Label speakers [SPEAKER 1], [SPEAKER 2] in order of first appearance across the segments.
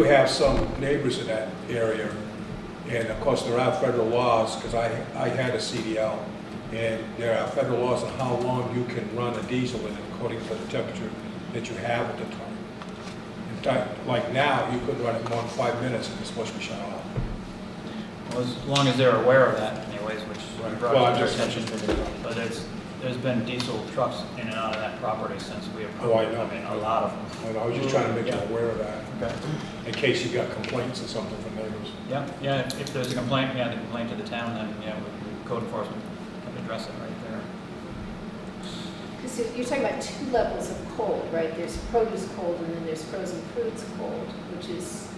[SPEAKER 1] We have some neighbors in that area, and of course, there are federal laws, because I, I had a CDL, and there are federal laws on how long you can run a diesel in according to the temperature that you have at the time. In fact, like now, you could run it more than five minutes and it's supposed to be shut off.
[SPEAKER 2] Well, as long as they're aware of that anyways, which we
[SPEAKER 1] Right.
[SPEAKER 2] brought
[SPEAKER 1] Well,
[SPEAKER 2] to
[SPEAKER 1] I'm
[SPEAKER 2] their
[SPEAKER 1] just-
[SPEAKER 2] attention. But there's, there's been diesel trucks in and out of that property since we
[SPEAKER 1] Oh, I
[SPEAKER 2] approved,
[SPEAKER 1] know.
[SPEAKER 2] I mean, a lot of them.
[SPEAKER 1] And I was just trying to make you
[SPEAKER 3] Mm-hmm.
[SPEAKER 1] aware of that,
[SPEAKER 2] Okay.
[SPEAKER 1] in case you got complaints or something from neighbors.
[SPEAKER 2] Yeah, yeah, if- if there's a complaint, yeah, the complaint to the town, then, yeah, we- we- code enforcement can address it right there.
[SPEAKER 4] Because you're talking about two levels of cold, right? There's produce cold and then there's frozen foods cold, which is,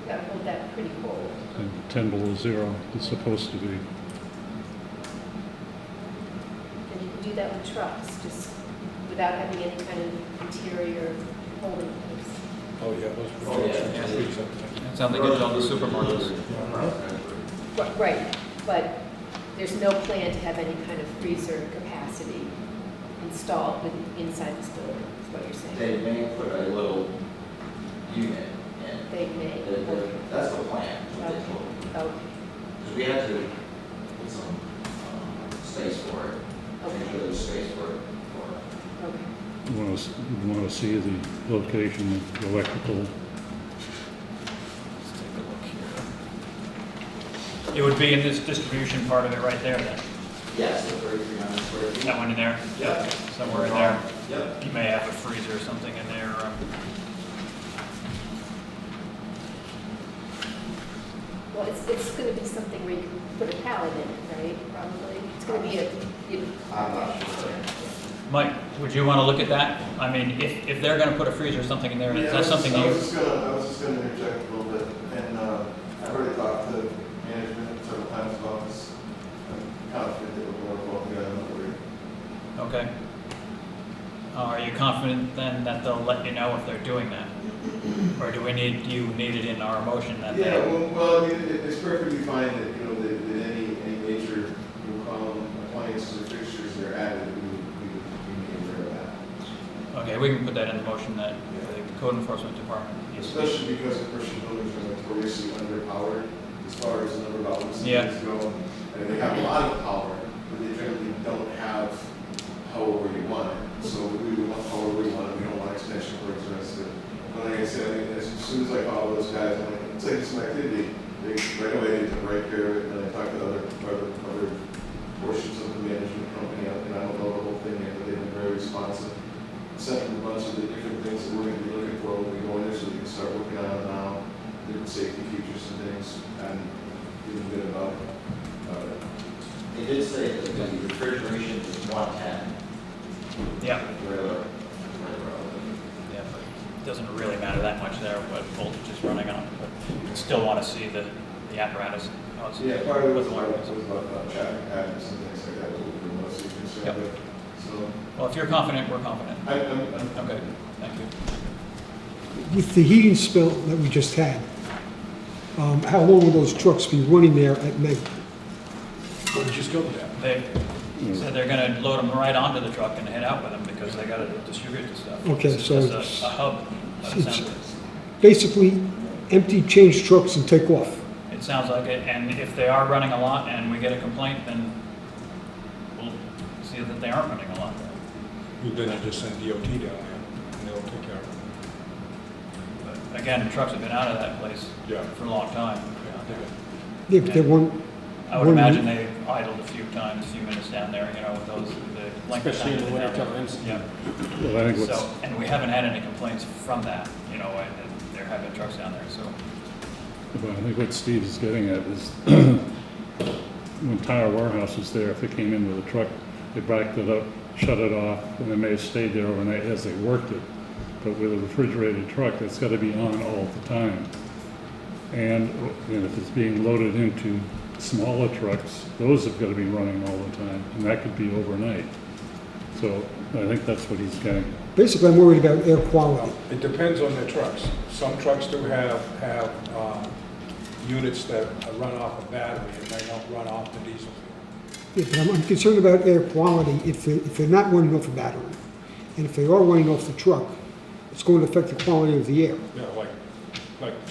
[SPEAKER 4] you gotta hold that pretty cold.
[SPEAKER 5] and 10 below zero, it's supposed to be.
[SPEAKER 4] And you can do that with trucks, just without having any kind of interior holding place.
[SPEAKER 1] Oh, yeah, those
[SPEAKER 3] Oh, yeah.
[SPEAKER 1] refrigerators are freezing.
[SPEAKER 2] It sounds like it's on the supermarkets.
[SPEAKER 4] But- Right, but there's no plan to have any kind of freezer capacity installed with- inside this building, is what you're saying.
[SPEAKER 3] They may put a little unit in.
[SPEAKER 4] They may.
[SPEAKER 3] That- that- That's the plan, what they told me.
[SPEAKER 4] Okay,
[SPEAKER 3] Because we had to put some um, space for it, make sure there's space for it. for-
[SPEAKER 4] okay.
[SPEAKER 5] You want to, you want to see the location of the electrical.
[SPEAKER 2] Let's take a look here. It would be in this distribution part of it right there then,
[SPEAKER 3] Yes, the 3,300 square feet.
[SPEAKER 2] that one in there?
[SPEAKER 3] Yeah.
[SPEAKER 2] Somewhere in there.
[SPEAKER 3] Yep.
[SPEAKER 2] You may have a freezer or something in there, um, or a
[SPEAKER 4] Well, it's, it's gonna be something where you can put a pallet in it, right, probably? It's gonna be a, you-
[SPEAKER 3] I'm not sure.
[SPEAKER 2] Mike, would you want to look at that? I mean, if, if they're going to put a freezer or something in there, is
[SPEAKER 6] Yeah, I
[SPEAKER 2] that
[SPEAKER 6] was-
[SPEAKER 2] something
[SPEAKER 6] I was
[SPEAKER 2] you,
[SPEAKER 6] just gonna, I was just gonna interject a little bit, and, uh, I've already talked to management several times about this. um, I'm confident they will work well together, I'm not worried.
[SPEAKER 2] okay? Uh, Are you confident then that they'll let you know if they're doing that? Or do we need, do you need it in our motion that
[SPEAKER 6] Yeah,
[SPEAKER 2] they?
[SPEAKER 6] well, well, I mean, it, it's perfectly fine that, you know, that, that any, any major, you know, um, appliances or fixtures that are added, we, would- we, would- we may aware of that.
[SPEAKER 2] Okay, we can put that in the motion that the code enforcement department needs to be.
[SPEAKER 6] Especially because the commercial buildings are notoriously underpowered as far as the number of outlets and
[SPEAKER 2] Yeah.
[SPEAKER 6] things go. And they have a lot of power, but they generally don't have however you want it. So we would want however we want it, we don't want extension cords or anything. But like I said, I mean, as soon as I call those guys, I'm like, it's like some activity. They, right away, they took right care of it, and I talked to other, other, other portions of the management company, and I don't know the whole thing yet, but they've been very responsive sent them a bunch of the different things that we're gonna be looking for when we go in there, so we can start working on it now, different safety features and things, and feeling good about, about it.
[SPEAKER 3] They did say that the refrigeration is 110,
[SPEAKER 2] Yeah,
[SPEAKER 3] regular, regular.
[SPEAKER 2] yeah, but it doesn't really matter that much there what voltage is running on, but you still want to see the, the apparatus. how it's-
[SPEAKER 6] So, yeah, part of it
[SPEAKER 2] what the
[SPEAKER 6] was about,
[SPEAKER 2] wiring is.
[SPEAKER 6] was about uh, traffic patterns and things like that, what we were mostly
[SPEAKER 2] Yep.
[SPEAKER 6] concerned with. So,
[SPEAKER 2] Well, if you're confident, we're confident.
[SPEAKER 6] I, I'm, I'm
[SPEAKER 2] Okay, thank you.
[SPEAKER 7] With the heating spill that we just had, um, how long will those trucks be running there at night?
[SPEAKER 1] Where did you just go with that?
[SPEAKER 2] They said they're gonna load them right onto the truck and head out with them because they gotta distribute the stuff.
[SPEAKER 7] Okay,
[SPEAKER 2] It's
[SPEAKER 7] so
[SPEAKER 2] just a-
[SPEAKER 7] it's-
[SPEAKER 2] A hub of
[SPEAKER 7] it's-
[SPEAKER 2] assemblies.
[SPEAKER 7] Basically, empty change trucks and take off.
[SPEAKER 2] It sounds like it, and if they are running a lot and we get a complaint, then we'll see that they aren't running a lot.
[SPEAKER 1] Then you just send DOT down there, and they'll take care of it.
[SPEAKER 2] But Again, trucks have been out of that place
[SPEAKER 1] Yeah.
[SPEAKER 2] for a long time.
[SPEAKER 7] Yeah, but they won't,
[SPEAKER 2] I would
[SPEAKER 7] Wouldn't
[SPEAKER 2] imagine
[SPEAKER 7] we-
[SPEAKER 2] they idled a few times, a few minutes down there, you know, with those, the length of
[SPEAKER 8] Especially
[SPEAKER 2] time.
[SPEAKER 8] in the
[SPEAKER 2] that they-
[SPEAKER 8] winter times.
[SPEAKER 2] Yeah.
[SPEAKER 5] Well, I think
[SPEAKER 2] So,
[SPEAKER 5] what's,
[SPEAKER 2] and we haven't had any complaints from that, you know, and and there have been trucks down there, so.
[SPEAKER 5] well, I think what Steve is getting at is when tire warehouse was there, if they came in with a truck, they backed it up, shut it off, and they may have stayed there overnight as they worked it. But with a refrigerated truck, it's got to be on all the time. And, and if it's being loaded into smaller trucks, those have got to be running all the time, and that could be overnight. So I think that's what he's getting at.
[SPEAKER 7] basically, I'm worried about air quality.
[SPEAKER 1] It depends on the trucks. Some trucks do have, have um, units that run off a battery and they don't run off the diesel.
[SPEAKER 7] Yeah, but I'm I'm concerned about air quality if they- if they're not running off a battery. And if they are running off the truck, it's going to affect the quality of the air.
[SPEAKER 1] Yeah, like, like